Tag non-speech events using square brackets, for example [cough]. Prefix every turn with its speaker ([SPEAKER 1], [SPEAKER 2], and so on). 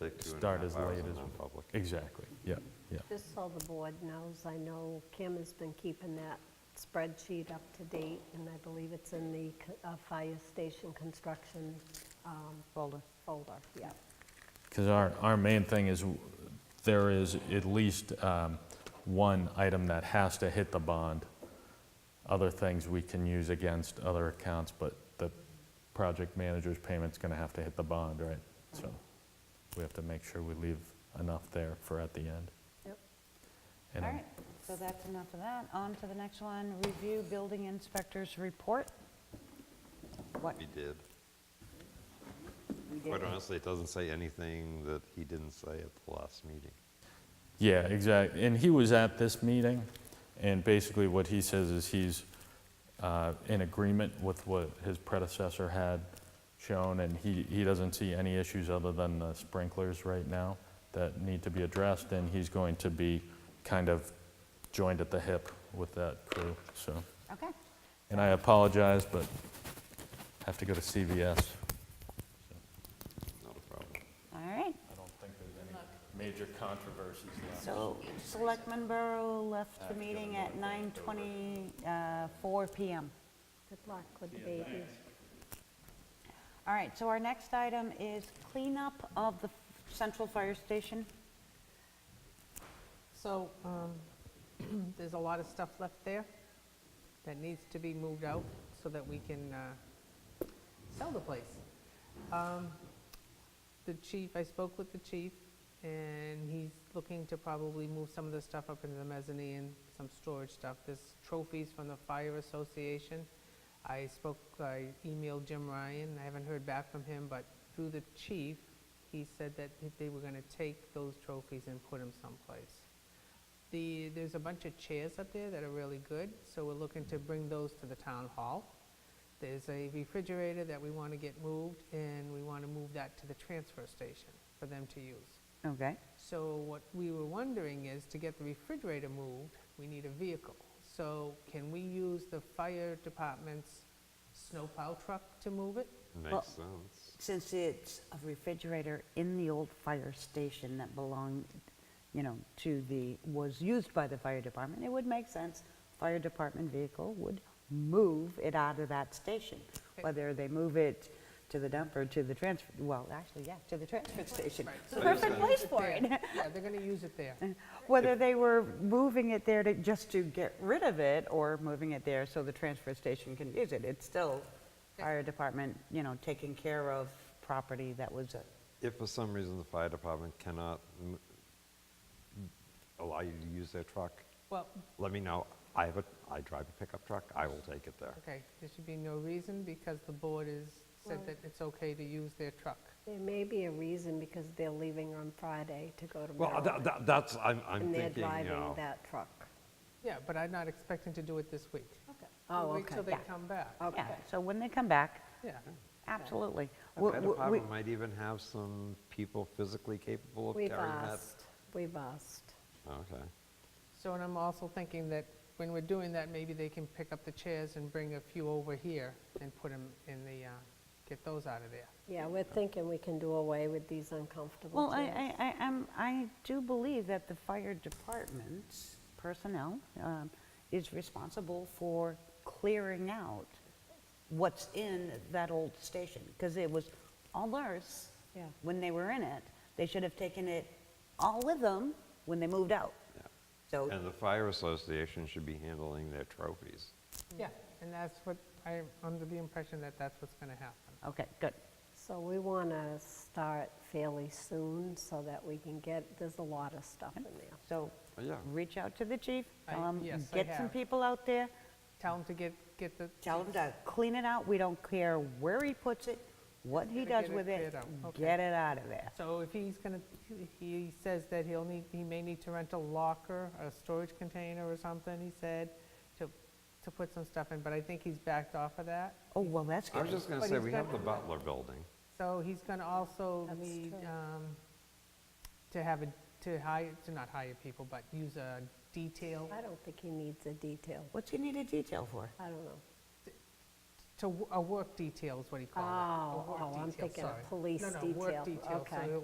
[SPEAKER 1] Take two and a
[SPEAKER 2] Start
[SPEAKER 1] half
[SPEAKER 2] as
[SPEAKER 1] hours
[SPEAKER 2] late
[SPEAKER 1] in
[SPEAKER 2] as-
[SPEAKER 1] non-public.
[SPEAKER 2] Exactly, yeah, yeah.
[SPEAKER 3] Just so the board knows, I know Kim has been keeping that spreadsheet up to date, and I believe it's in the co- uh, fire station construction um,
[SPEAKER 4] Folder.
[SPEAKER 3] folder, yeah.
[SPEAKER 2] Because our, our main thing is, w- there is at least um, one item that has to hit the bond. Other things we can use against other accounts, but the project manager's payment's gonna have to hit the bond, right? So we have to make sure we leave enough there for at the end.
[SPEAKER 3] Yep.
[SPEAKER 4] All
[SPEAKER 2] And
[SPEAKER 4] right, so that's enough of that. On to the next one, review building inspector's report. What?
[SPEAKER 1] He did.
[SPEAKER 4] we did.
[SPEAKER 1] Quite honestly, it doesn't say anything that he didn't say at the last meeting.
[SPEAKER 2] Yeah, exactly. And he was at this meeting, and basically what he says is he's uh, in agreement with what his predecessor had shown, and he, he doesn't see any issues other than the sprinklers right now that need to be addressed, and he's going to be kind of joined at the hip with that crew, so.
[SPEAKER 4] Okay,
[SPEAKER 2] And I apologize, but I have to go to CVS.
[SPEAKER 1] Not a problem.
[SPEAKER 4] all right.
[SPEAKER 2] I don't think there's any major controversies left.
[SPEAKER 4] So Selectman Burrow left the meeting at uh, 9:24 PM.
[SPEAKER 3] Good luck with the babies.
[SPEAKER 4] All right, so our next item is cleanup of the central fire station.
[SPEAKER 5] So, um, [clears throat] there's a lot of stuff left there that needs to be moved out so that we can uh, sell the place. Um, The chief, I spoke with the chief, and he's looking to probably move some of the stuff up into the mezzanine, some storage stuff. There's trophies from the fire association. I spoke, I emailed Jim Ryan, I haven't heard back from him, but through the chief, he said that they were gonna take those trophies and put them someplace. The, there's a bunch of chairs up there that are really good, so we're looking to bring those to the town hall. There's a refrigerator that we want to get moved, and we want to move that to the transfer station for them to use.
[SPEAKER 4] Okay.
[SPEAKER 5] So what we were wondering is, to get the refrigerator moved, we need a vehicle. So can we use the fire department's snowplow truck to move it?
[SPEAKER 1] Makes sense.
[SPEAKER 4] Since it's a refrigerator in the old fire station that belonged, you know, to the, was used by the fire department, it would make sense, fire department vehicle would move it out of that station, whether they move it to the dump or to the transfer, well, actually, yeah, to the transfer station. It's the perfect place for it.
[SPEAKER 5] There. Yeah, they're going to use it there.
[SPEAKER 4] Whether they were moving it there to, just to get rid of it, or moving it there so the transfer station can use it, it's still fire department, you know, taking care of property that was, uh, a-
[SPEAKER 1] If for some reason the fire department cannot m- allow you to use their truck,
[SPEAKER 5] Well,
[SPEAKER 1] let me know. I have a, I drive a pickup truck, I will take it there.
[SPEAKER 5] okay, there should be no reason, because the board has said that it's okay to use their truck.
[SPEAKER 3] There may be a reason because they're leaving on Friday to go to
[SPEAKER 1] Well, tha-
[SPEAKER 3] Maryland,
[SPEAKER 1] tha- that's, I'm, I'm
[SPEAKER 3] and they're
[SPEAKER 1] thinking, you
[SPEAKER 3] driving
[SPEAKER 1] know.
[SPEAKER 3] that truck.
[SPEAKER 5] Yeah, but I'm not expecting to do it this week. Okay.
[SPEAKER 3] Oh,
[SPEAKER 5] Wait till
[SPEAKER 3] okay,
[SPEAKER 5] they
[SPEAKER 4] yeah. Oh.
[SPEAKER 5] come back,
[SPEAKER 4] yeah,
[SPEAKER 3] okay.
[SPEAKER 4] so when they come back,
[SPEAKER 5] yeah.
[SPEAKER 4] absolutely.
[SPEAKER 1] The
[SPEAKER 4] We-
[SPEAKER 1] fire
[SPEAKER 4] we- we-
[SPEAKER 1] department might even have some people physically capable of carrying
[SPEAKER 3] We've
[SPEAKER 1] that.
[SPEAKER 3] asked, we've asked.
[SPEAKER 1] Okay.
[SPEAKER 5] So, and I'm also thinking that when we're doing that, maybe they can pick up the chairs and bring a few over here and put them in the, uh, get those out of there.
[SPEAKER 3] Yeah, we're thinking we can do away with these uncomfortable
[SPEAKER 4] Well, I,
[SPEAKER 3] chairs.
[SPEAKER 4] I, I, I'm- I do believe that the fire department's personnel um, is responsible for clearing out what's in that old station, because it was all theirs
[SPEAKER 3] Yeah.
[SPEAKER 4] when they were in it. They should have taken it all with them when they moved out. So,
[SPEAKER 1] And the fire association should be handling their trophies.
[SPEAKER 5] Yeah, and that's what, I'm under the impression that that's what's going to happen.
[SPEAKER 4] okay, good.
[SPEAKER 3] So we want to start fairly soon so that we can get, there's a lot of stuff in there.
[SPEAKER 4] So,
[SPEAKER 1] Oh, Yeah.
[SPEAKER 4] reach out to the chief, tell
[SPEAKER 5] I-
[SPEAKER 4] him,
[SPEAKER 5] yes, I
[SPEAKER 4] get some
[SPEAKER 5] have.
[SPEAKER 4] people out there,
[SPEAKER 5] Tell them to get, get the.
[SPEAKER 4] Tell him to clean it out, we don't care where he puts it, what he
[SPEAKER 5] Gotta
[SPEAKER 4] does
[SPEAKER 5] get it
[SPEAKER 4] with it,
[SPEAKER 5] cleared out, okay.
[SPEAKER 4] get it out of there.
[SPEAKER 5] So if he's going to, he says that he'll need, he may need to rent a locker, a storage container or something, he said, to, to put some stuff in, but I think he's backed off of that.
[SPEAKER 4] Oh, well, that's
[SPEAKER 1] I was
[SPEAKER 4] good.
[SPEAKER 1] just going to
[SPEAKER 5] But
[SPEAKER 1] say,
[SPEAKER 5] he's
[SPEAKER 1] we have the
[SPEAKER 5] got-
[SPEAKER 1] Butler Building.
[SPEAKER 5] So he's going to also
[SPEAKER 3] That's
[SPEAKER 5] need
[SPEAKER 3] true.
[SPEAKER 5] um, to have a, to hire, to not hire people, but use a detail
[SPEAKER 3] I don't think he needs a detail.
[SPEAKER 4] What's he need a detail for?
[SPEAKER 3] I don't know.
[SPEAKER 5] to, w- a work detail is what he called it. A
[SPEAKER 3] Oh,
[SPEAKER 5] work
[SPEAKER 3] oh, I'm
[SPEAKER 5] detail,
[SPEAKER 3] thinking a
[SPEAKER 5] sorry.
[SPEAKER 3] police
[SPEAKER 5] No, no, work
[SPEAKER 3] detail,
[SPEAKER 5] detail. So
[SPEAKER 3] okay.
[SPEAKER 5] he'll-